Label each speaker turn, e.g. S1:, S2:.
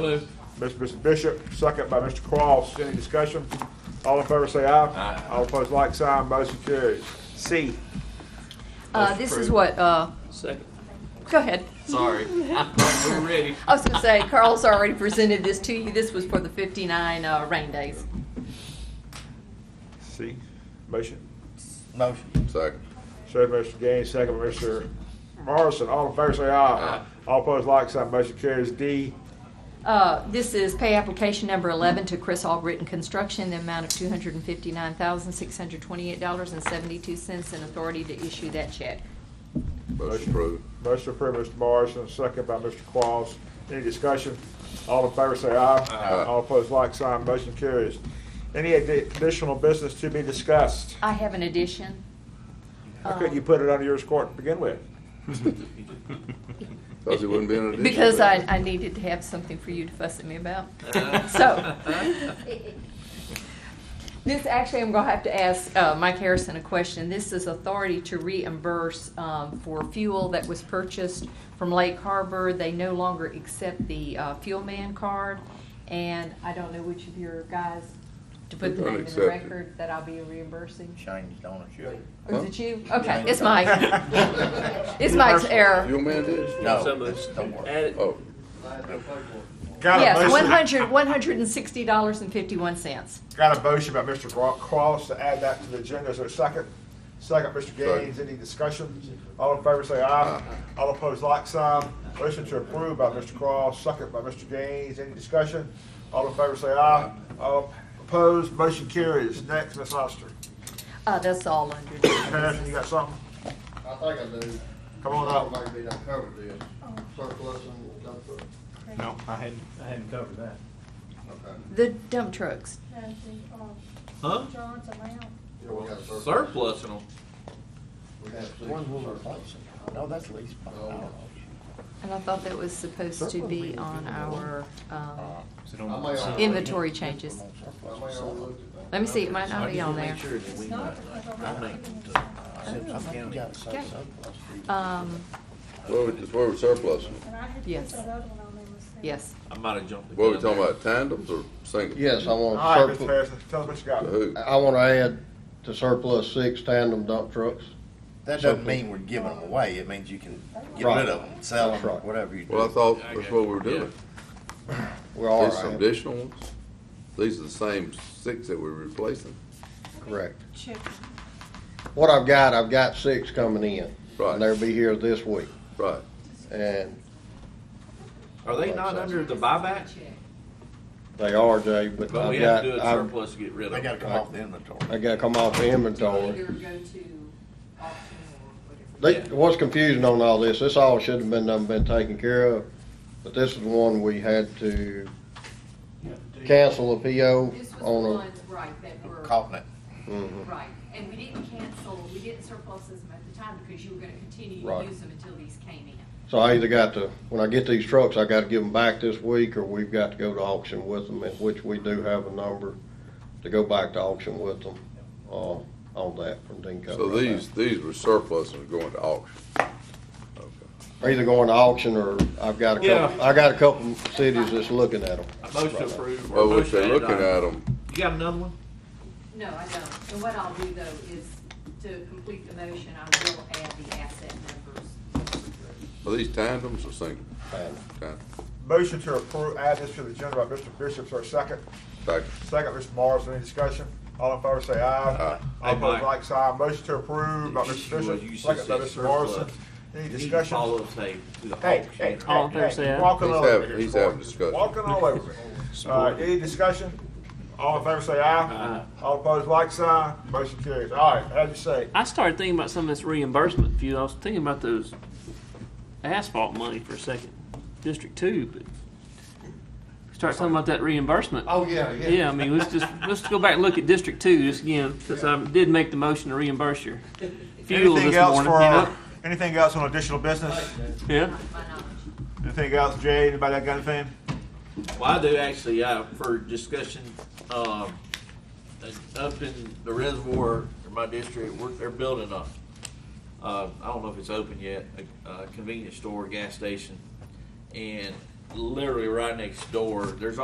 S1: Move.
S2: Mr. Bishop, second by Mr. Cross. Any discussion? All in favor say aye.
S1: Aye.
S2: All opposed, like sign, motion carries.
S3: C.
S4: Uh,
S2: Motion
S4: this is
S2: approved.
S4: what, uh,
S1: Second.
S4: go ahead.
S1: Sorry. We're ready.
S4: I was gonna say, Carl's already presented this to you. This was for the fifty-nine, uh, rain days.
S2: C, motion.
S5: Motion. Second.
S2: Second by Mr. Gaines, second by Mr. Morrison. All in favor say aye.
S1: Aye.
S2: All opposed, like sign, motion carries. D,
S4: Uh, this is pay application number eleven to Chris Albritton Construction, in the amount of two hundred and fifty-nine thousand, six hundred twenty-eight dollars and seventy-two cents, and authority to issue that check.
S5: Motion approved.
S2: motion approved, Mr. Morrison, second by Mr. Cross. Any discussion? All in favor say aye.
S5: Aye.
S2: All opposed, like sign, motion carries. Any addi- additional business to be discussed?
S4: I have an addition.
S2: How could
S4: Um,
S2: you put it under yours court to begin with?
S5: Thought it wouldn't be an addition.
S4: Because I, I needed to have something for you to fuss at me about. So, this actually, I'm gonna have to ask uh, Mike Harrison a question. This is authority to reimburse um, for fuel that was purchased from Lake Harbor. They no longer accept the uh, fuel man card, and I don't know which of your guys to put the
S5: Don't
S4: name in
S5: accept
S4: the
S5: it.
S4: record that I'll be reimbursing.
S6: changed ownership.
S4: Or is
S5: Huh?
S4: it you? Okay,
S6: Shane.
S4: it's Mike. It's Mike's
S5: Your
S4: error.
S5: man did?
S6: No,
S1: Some of us
S6: don't worry.
S1: added-
S5: Oh,
S2: Got a
S4: Yes,
S2: motion-
S4: one hundred, one hundred and sixty dollars and fifty-one cents.
S2: Got a motion by Mr. Gro- Cross to add that to the agenda. Is there a second? Second, Mr. Gaines. Any discussion? All in favor say aye. All opposed, like sign. Motion to approve by Mr. Cross, second by Mr. Gaines. Any discussion? All in favor say aye. All opposed, motion carries. Next, Ms. Oster.
S4: Uh, that's all under.
S2: Harrison, you got something?
S7: I think I do.
S2: Come on up.
S7: I Maybe not covered this. Surplus and dump truck.
S8: No, I hadn't.
S7: Okay.
S4: The dump trucks.
S9: Has the,
S1: Huh?
S9: uh, John's amount,
S7: Yeah, we got a surplus.
S1: Surplus and all.
S7: We have six
S6: One will
S7: surplus.
S6: replace it. No, that's lease. I don't know.
S4: And I thought that was supposed to be on our, um,
S8: So
S7: I may
S8: don't.
S7: overlook-
S4: inventory changes.
S7: I may overlook it.
S4: Let me see, it might not be on
S6: Make
S4: there.
S6: sure that we know.
S9: not because I'm not giving you some,
S6: Simpson County got some
S4: Okay.
S6: surplus.
S4: Um,
S5: where we, it's where we surplus.
S9: and I had to put
S4: Yes.
S9: that other one on there. Miss Sam.
S4: yes.
S1: I might have jumped. the
S5: What are we
S1: gun
S5: talking
S1: there.
S5: about, tandems or singles?
S7: Yes, I
S2: All right,
S7: want
S2: Mr.
S7: surplus,
S2: Harrison, tell us what you
S5: To
S2: got.
S5: who?
S7: I want to add to surplus six tandem dump trucks.
S6: That doesn't mean we're giving them away. It means you can get
S7: Right.
S6: rid of them, sell
S7: That's
S6: them,
S7: right.
S6: whatever you do.
S5: Well, I thought that's what we were doing.
S7: We're all
S5: These some
S7: right,
S5: additional ones? These are the same six that we're replacing.
S7: correct.
S9: Check.
S7: What I've got, I've got six coming in.
S5: Right.
S7: And they'll be here this week.
S5: Right.
S7: And
S1: Are they not under the buyback?
S7: they are, Jay, but
S1: But we have
S7: I've got,
S1: to do a
S7: I've,
S1: surplus to get rid of
S6: They
S1: them.
S6: gotta come off the inventory.
S7: I gotta come off the inventory.
S4: go to auction or
S7: They,
S1: Yeah.
S7: what's confusing on all this, this all should have been, done been taken care of, but this is one we had to cancel a PO
S4: This was
S7: on
S4: the
S7: a.
S4: ones, right, that Mm-hmm. were,
S6: Caught it.
S7: Mhm.
S4: right. And we didn't cancel, we didn't surplus them at the time because you were gonna continue to
S7: Right.
S4: use them until these came in.
S7: So I either got to, when I get these trucks, I gotta give them back this week, or we've got to go to auction with them, in which we do have a number to go back to auction with them, uh, on that from Dinko.
S5: So
S7: right now.
S5: these, these were surplus and going to auction. Okay.
S7: Are Either going to auction, or I've got a couple,
S1: Yeah.
S7: I got a couple cities that's looking at them.
S1: A motion approved. or a
S5: Well,
S1: motion
S5: if they're
S1: added
S5: Oh, looking
S1: item.
S5: at them,
S1: You got another one?
S4: No, I don't. And what I'll do though is to complete the motion, I will add the asset numbers.
S5: are these tandems or singles?
S7: Tandem.
S5: Tandem.
S2: Motion to approve, add this to the agenda by Mr. Bishop, sir, second.
S5: Second.
S2: Second, Mr. Morrison, any discussion? All in favor say aye.
S5: Aye.
S2: All
S1: Hey, Mike.
S2: opposed, like sign. Motion to approve by Mr.
S1: Well, you
S2: Bishop,
S1: should
S2: second by
S1: say
S2: Mr.
S1: surplus.
S2: Morrison. Any
S1: You need to follow
S2: discussion?
S1: up, say, to the
S2: Hey, hey,
S1: auction.
S2: hey, hey, walking
S5: He's
S2: all over
S5: having-
S2: here.
S5: he's
S2: Sport.
S5: having discussion.
S2: Walking all over it. Uh, any discussion? All in favor say aye. All opposed, like sign. Motion carries. All right, how'd you say?
S10: I started thinking about some of this reimbursement view. I was thinking about those asphalt money for a second, District Two, but start talking about that reimbursement.
S7: Oh, yeah, yeah.
S10: Yeah, I mean, let's just, let's go back and look at District Two just again, since I did make the motion to reimburse your fuel
S2: Anything
S10: this
S2: else
S10: morning,
S2: for,
S10: you know?
S2: our- anything else on additional business?
S10: Yeah,
S4: My knowledge.
S2: Anything else, Jay? Anybody got anything?
S1: Well, I do actually, uh, for discussion, um, uh, up in the reservoir in my district, we're, they're building a, uh, I don't know if it's open yet, a, a convenience store, gas station. And literally right next door. There's